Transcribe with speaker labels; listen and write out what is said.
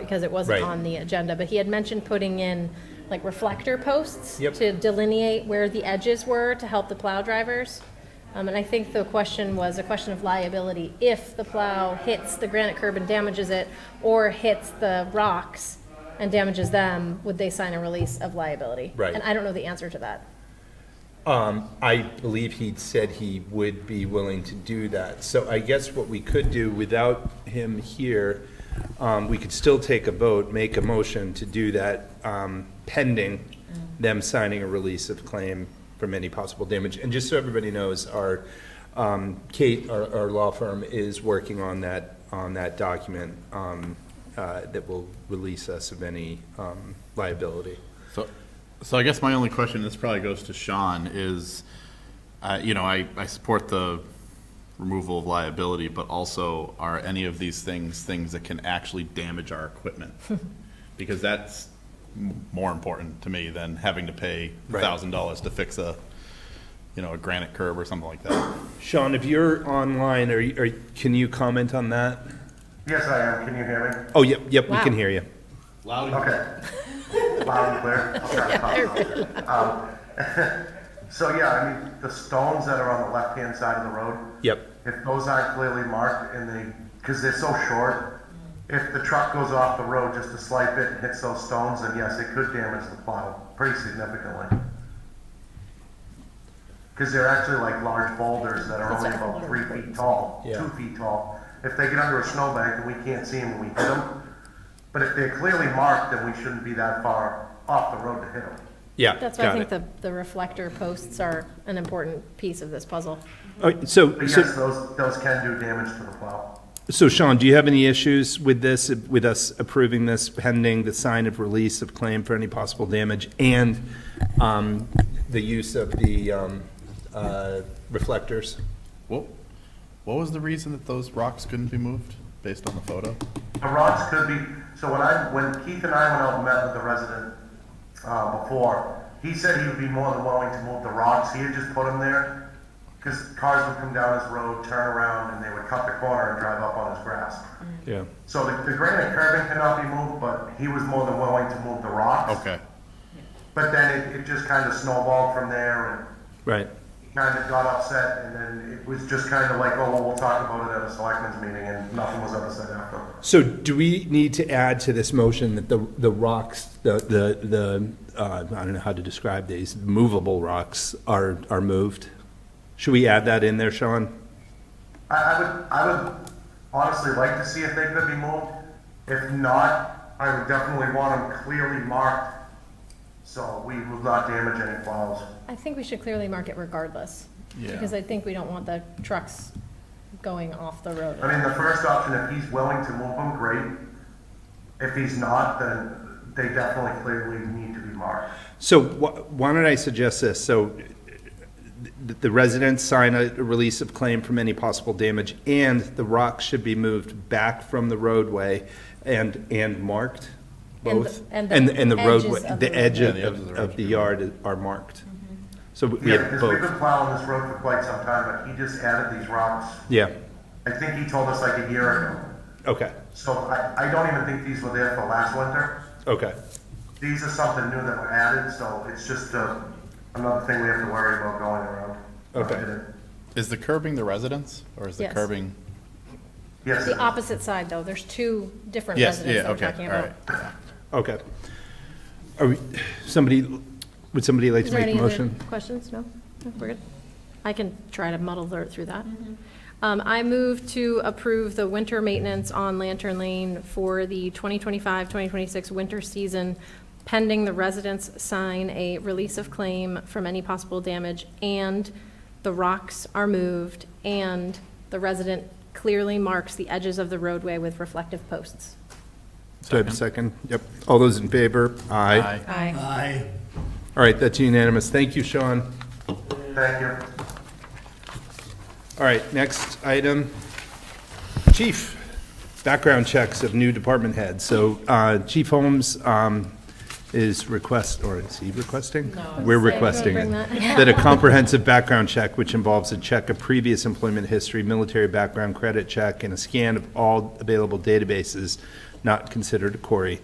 Speaker 1: because it wasn't
Speaker 2: Right.
Speaker 1: on the agenda, but he had mentioned putting in like reflector posts
Speaker 2: Yep.
Speaker 1: to delineate where the edges were to help the plow drivers. Um, and I think the question was a question of liability. If the plow hits the granite curb and damages it, or hits the rocks and damages them, would they sign a release of liability?
Speaker 2: Right.
Speaker 1: And I don't know the answer to that.
Speaker 2: I believe he said he would be willing to do that. So I guess what we could do without him here, um, we could still take a vote, make a motion to do that um, pending them signing a release of claim from any possible damage. And just so everybody knows, our, um, Kate, our our law firm, is working on that, on that document um, uh, that will release us of any um, liability.
Speaker 3: So, so I guess my only question, this probably goes to Sean, is, uh, you know, I, I support the removal of liability, but also are any of these things, things that can actually damage our equipment? Because that's m- more important to me than having to pay
Speaker 2: Right.
Speaker 3: thousand dollars to fix a, you know, a granite curb or something like that.
Speaker 2: Sean, if you're online, are, you- are, can you comment on that?
Speaker 4: Yes, I am. Can you hear
Speaker 2: Oh, yep, yep, we can
Speaker 1: Wow.
Speaker 2: hear you.
Speaker 4: me? Okay. Loud and clear. I'll try to talk louder. Um, So yeah, I mean, the stones that are on the left-hand side of the road,
Speaker 2: Yep,
Speaker 4: if those aren't clearly marked and they, because they're so short, if the truck goes off the road just a slight bit and hits those stones, then yes, it could damage the plow pretty significantly. Because they're actually like large boulders that are only about three feet tall,
Speaker 2: Yeah.
Speaker 4: two feet tall. If they get under a snowbank, then we can't see them when we hit them. But if they're clearly marked, then we shouldn't be that far off the road to hit them.
Speaker 2: yeah,
Speaker 1: That's why I
Speaker 2: got
Speaker 1: think
Speaker 2: it.
Speaker 1: the, the reflector posts are an important piece of this puzzle.
Speaker 2: All right, So,
Speaker 4: But yes,
Speaker 2: so,
Speaker 4: those, those can do damage to the plow.
Speaker 2: so Sean, do you have any issues with this, with us approving this pending the sign of release of claim for any possible damage and, um, the use of the, um, uh, reflectors?
Speaker 3: What, what was the reason that those rocks couldn't be moved, based on the photo?
Speaker 4: The rocks could be, so when I, when Keith and I went out and met with the resident, uh, before, he said he would be more than willing to move the rocks, he had just put them there, because cars would come down his road, turn around, and they would cut the corner and drive up on his grass.
Speaker 2: Yeah.
Speaker 4: So the, the granite curbing cannot be moved, but he was more than willing to move the rocks.
Speaker 3: Okay,
Speaker 4: But then it, it just kind of snowballed from there,
Speaker 2: Right,
Speaker 4: and kind of got upset, and then it was just kind of like, oh, well, we'll talk about it at a selectmen's meeting, and nothing was ever said after.
Speaker 2: so do we need to add to this motion that the, the rocks, the, the, the, uh, I don't know how to describe these, movable rocks are, are moved? Should we add that in there, Sean?
Speaker 4: I, I would, I would honestly like to see if they could be moved. If not, I would definitely want them clearly marked, so we will not damage any plows.
Speaker 1: I think we should clearly mark it regardless.
Speaker 3: Yeah.
Speaker 1: Because I think we don't want the trucks going off the road.
Speaker 4: I mean, the first option, if he's willing to move them, great. If he's not, then they definitely clearly need to be marked.
Speaker 2: So wh- why don't I suggest this? So th- the residents sign a release of claim from any possible damage, and the rocks should be moved back from the roadway and, and marked,
Speaker 1: And the-
Speaker 2: both?
Speaker 1: and the
Speaker 2: And, and the
Speaker 1: edges
Speaker 2: roadway,
Speaker 1: of the
Speaker 2: the
Speaker 1: Mm-hmm.
Speaker 2: edge
Speaker 3: road.
Speaker 2: of,
Speaker 3: Yeah, the edges of the road
Speaker 2: of the yard are marked. So we
Speaker 4: Yeah,
Speaker 2: have
Speaker 4: because we've
Speaker 2: both,
Speaker 4: been plowing this road for quite some time, but he just added these rocks.
Speaker 2: yeah,
Speaker 4: I think he told us like a year ago.
Speaker 2: okay,
Speaker 4: So I, I don't even think these were there for last winter.
Speaker 2: okay,
Speaker 4: These are something new that were added, so it's just uh, another thing we have to worry about going around.
Speaker 2: Okay.
Speaker 3: is the curbing the residence, or is the
Speaker 1: Yes.
Speaker 3: curbing?
Speaker 4: Yes,
Speaker 1: The opposite side, though, there's two different
Speaker 3: Yes,
Speaker 1: residents
Speaker 3: yeah,
Speaker 1: that we're
Speaker 3: okay,
Speaker 1: talking
Speaker 3: all right.
Speaker 1: about.
Speaker 2: okay. Are we, somebody, would somebody like
Speaker 1: Is
Speaker 2: to
Speaker 1: there
Speaker 2: make a
Speaker 1: any other
Speaker 2: motion?
Speaker 1: questions? No? No, We're good? I can try to muddle ther- through that. Um, I move to approve the winter maintenance on Lantern Lane for the 2025, 2026 winter season pending the residents sign a release of claim from any possible damage and the rocks are moved and the resident clearly marks the edges of the roadway with reflective posts.
Speaker 2: Do I have a second? Yep. All those in favor? Aye.
Speaker 3: Aye.
Speaker 1: Aye.
Speaker 2: All right, that's unanimous. Thank you, Sean.
Speaker 4: thank you.
Speaker 2: All right, next item. Chief, background checks of new department heads. So uh, Chief Holmes um, is request, or is he requesting? No. We're
Speaker 1: I was gonna
Speaker 2: requesting it.
Speaker 1: bring that.
Speaker 2: That a comprehensive background check, which involves a check of previous employment history, military background credit check, and a scan of all available databases not considered a quarry.